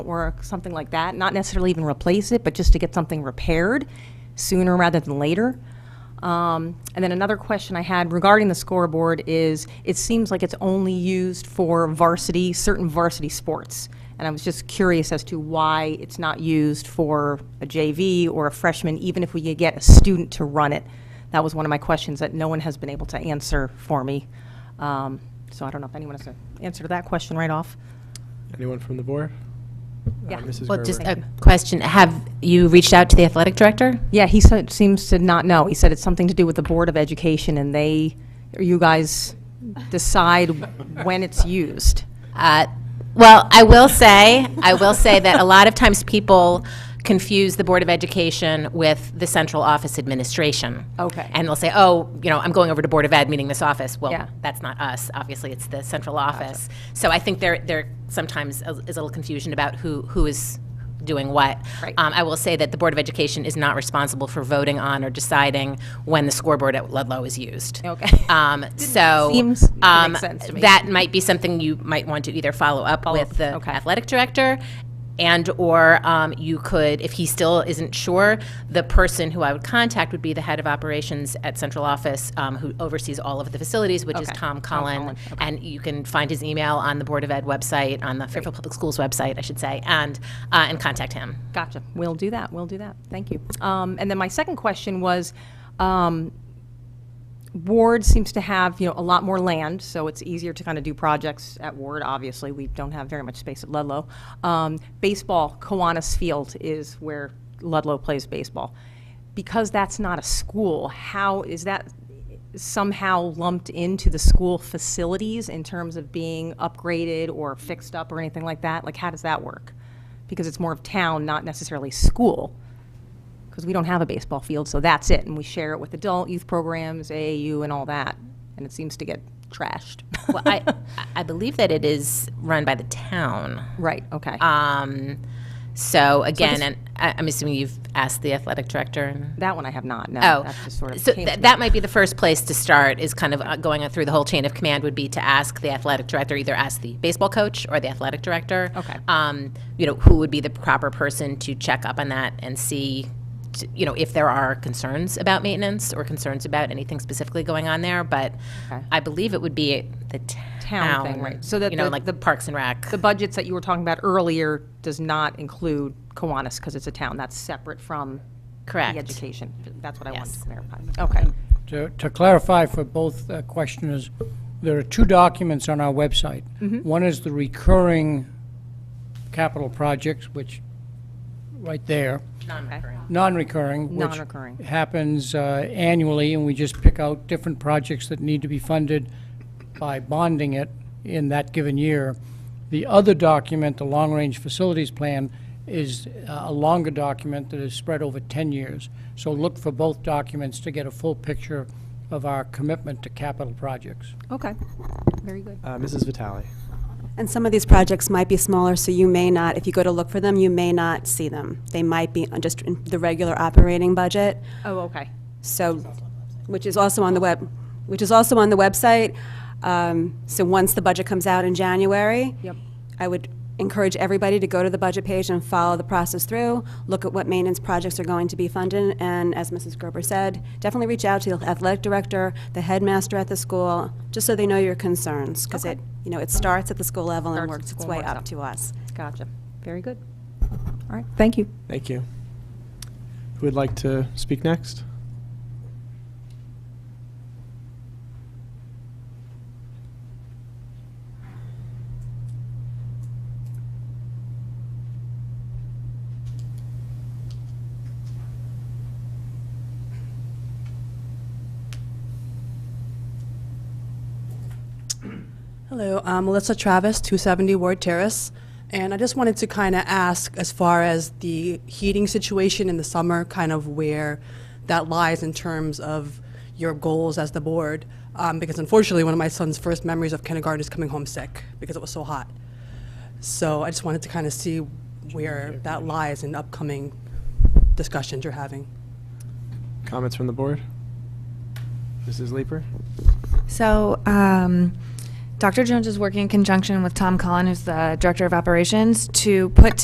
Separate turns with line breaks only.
or something like that, not necessarily even replace it, but just to get something repaired sooner rather than later. Um, And then another question I had regarding the scoreboard is, it seems like it's only used for varsity, certain varsity sports. And I was just curious as to why it's not used for a JV or a freshman, even if we could get a student to run it. That was one of my questions that no one has been able to answer for me. Um, So I don't know if anyone has an answer to that question right off.
Anyone from the board? Uh,
Yeah.
Mrs.
Well, just
Gerber.
a question. Have you reached out to the athletic director?
Yeah, he said, seems to not know. He said it's something to do with the Board of Education, and they, or you guys decide when it's used.
Uh, Well, I will say, I will say that a lot of times people confuse the Board of Education with the central office administration.
Okay.
And they'll say, oh, you know, I'm going over to Board of Ed, meeting this office.
Yeah.
Well, that's not us. Obviously, it's the central office. So I think there, there sometimes is a little confusion about who, who is doing what.
Right.
Um, I will say that the Board of Education is not responsible for voting on or deciding when the scoreboard at Ludlow is used.
Okay.
Um, so.
Seems- makes
um,
sense to me.
That might be something you might want to either follow up
Follow up,
with the
okay.
athletic director and/or um, you could, if he still isn't sure, the person who I would contact would be the head of operations at central office, um, who oversees all of the facilities, which is
Okay. Tom
Tom Cullen.
Cullen,
And you can find his email on the Board of Ed website, on the Fairfield Public Schools website, I should say, and, uh, and contact him.
Gotcha. We'll do that. We'll do that. Thank you. Um, and then my second question was, um, Ward seems to have, you know, a lot more land, so it's easier to kind of do projects at Ward, obviously. We don't have very much space at Ludlow. Um, baseball, Kiwanis Field is where Ludlow plays baseball. Because that's not a school, how is that somehow lumped into the school facilities in terms of being upgraded or fixed up or anything like that? Like, how does that work? Because it's more of town, not necessarily school because we don't have a baseball field, so that's it. And we share it with adult youth programs, AAU, and all that. And it seems to get trashed.
Well, I, I believe that it is run by the town.
right, okay.
Um, so
this-
again, and I, I'm assuming you've asked the athletic director and.
that one I have not. No,
Oh,
that's just sort of.
so
came
tha-
to me.
that might be the first place to start, is kind of uh, going through the whole chain of command would be to ask the athletic director, either ask the baseball coach or the athletic director.
Okay.
Um, you know, who would be the proper person to check up on that and see, t- you know, if there are concerns about maintenance or concerns about anything specifically going on there, but
Okay.
I believe it would be the
Town
town.
thing, right. So that
You know,
the-
like
the-
the Parks and Rec.
the budgets that you were talking about earlier does not include Kiwanis because it's a town. That's separate from
Correct.
the education. That's what I wanted to
Yes. Mm-hmm.
clarify. Okay.
To to clarify for both uh, questioners, there are two documents on our website. One is the recurring capital projects, which, right there,
Non-recurring.
non-recurring, which
Non-recurring.
happens uh, annually, and we just pick out different projects that need to be funded by bonding it in that given year. The other document, the long-range facilities plan, is uh, a longer document that is spread over 10 years. So look for both documents to get a full picture of our commitment to capital projects.
Okay. Very good.
Uh, Mrs. Vitale.
And some of these projects might be smaller, so you may not, if you go to look for them, you may not see them. They might be on just in the regular operating budget,
Oh, okay.
so, which is also on the web, which is also on the website. Um, So once the budget comes out in January.
Yep.
I would encourage everybody to go to the budget page and follow the process through, look at what maintenance projects are going to be funded, and as Mrs. Gerber said, definitely reach out to the athletic director, the headmaster at the school, just so they know your concerns, because it, you know, it starts at the school level and
Starts at
works its
school,
way
works up.
up to us.
Gotcha. Very good. All right. Thank you.
Thank you. Who would like to speak next?
Hello, I'm Melissa Travis, 270 Ward Terrace, and I just wanted to kind of ask as far as the heating situation in the summer, kind of where that lies in terms of your goals as the board, um, because unfortunately, one of my son's first memories of kindergarten is coming home sick because it was so hot. So I just wanted to kind of see where that lies in upcoming discussions you're having.
Comments from the board? Mrs. Leeper?
So, um, Dr. Jones is working in conjunction with Tom Cullen, who's the director of operations, to put